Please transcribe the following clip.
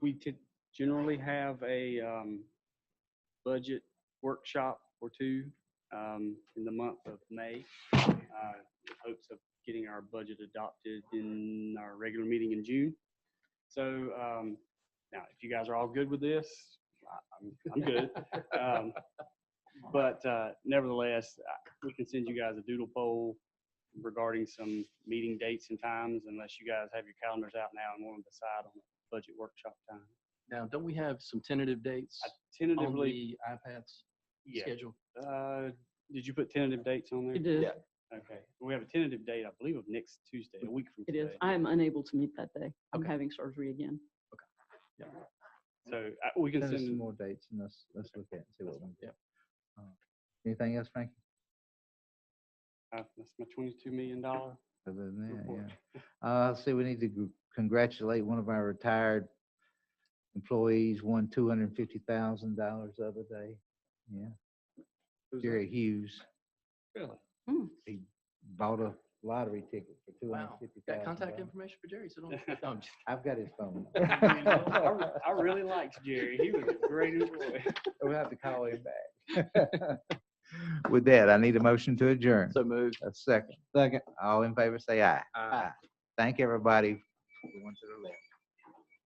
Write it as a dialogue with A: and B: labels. A: we could generally have a um, budget workshop or two um, in the month of May, uh, in hopes of getting our budget adopted in our regular meeting in June. So um, now, if you guys are all good with this, I- I'm, I'm good. Um, But uh, nevertheless, I- we can send you guys a doodle poll regarding some meeting dates and times unless you guys have your calendars out now and want to decide on a budget workshop time.
B: Now, don't we have some tentative dates
A: I
B: on
A: Tentatively,
B: the iPads
A: yeah.
B: schedule?
A: Uh, Did you put tentative dates on there?
C: It is,
D: Yeah.
A: Okay. We have a tentative date, I believe, of next Tuesday, a week from
C: it is.
A: today.
C: I am unable to meet that day. I'm
B: Okay.
C: having surgery again.
A: So uh, we can
D: Send us some
A: send,
D: more dates and let's, let's look at it and see what we can do.
B: yeah.
D: Uh, Anything else, Frankie?
A: uh, that's my $22 million.
D: Other than
A: Report.
D: that, yeah. Uh, see, we need to gr- congratulate one of our retired employees, won two hundred and fifty thousand dollars the other day. Yeah, Jerry Hughes,
A: Really?
D: bought a lottery ticket for two hundred
B: Wow.
D: and fifty thousand.
B: Got contact information for Jerry, so don't. no, I'm just-
D: I've got his phone.
A: I re- I really liked Jerry. He was a great employee.
D: We'll have to call him back. With that, I need a motion to adjourn.
B: So moved.
D: A second. Second. All in favor, say aye.
B: Aye.
D: Thank everybody. The one to the left.